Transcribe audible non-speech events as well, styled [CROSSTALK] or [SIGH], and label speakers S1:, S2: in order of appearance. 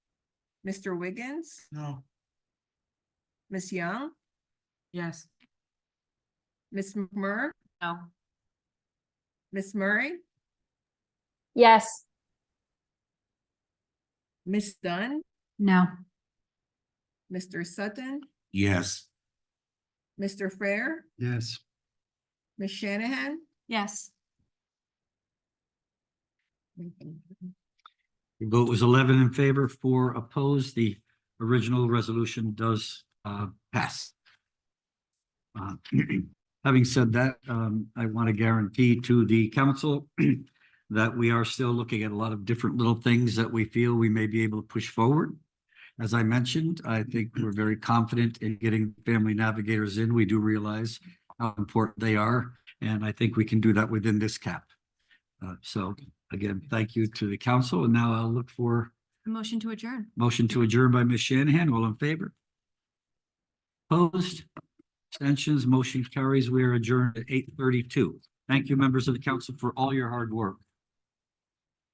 S1: Mr. Wiggins,
S2: No.
S1: Ms. Young,
S3: Yes.
S1: Ms. Mur,
S3: No.
S1: Ms. Murray,
S4: Yes.
S1: Ms. Dunn,
S3: No.
S1: Mr. Sutton,
S2: Yes.
S1: Mr. Fair,
S2: Yes.
S1: Ms. Shanahan.
S3: Yes.
S5: The vote was eleven in favor, four opposed. The original resolution does uh pass. Uh, [CLEARS THROAT] Having said that, um, I want to guarantee to the council [CLEARS THROAT] that we are still looking at a lot of different little things that we feel we may be able to push forward. As I mentioned, I think we're very confident in getting family navigators in. We do realize how important they are, and I think we can do that within this cap. Uh, so Again, thank you to the council, and now I'll look for
S3: Motion to adjourn.
S5: motion to adjourn by Ms. Shanahan. All in favor? Opposed? Abstentions? Motion carries. We are adjourned at eight thirty-two. Thank you, members of the council, for all your hard work.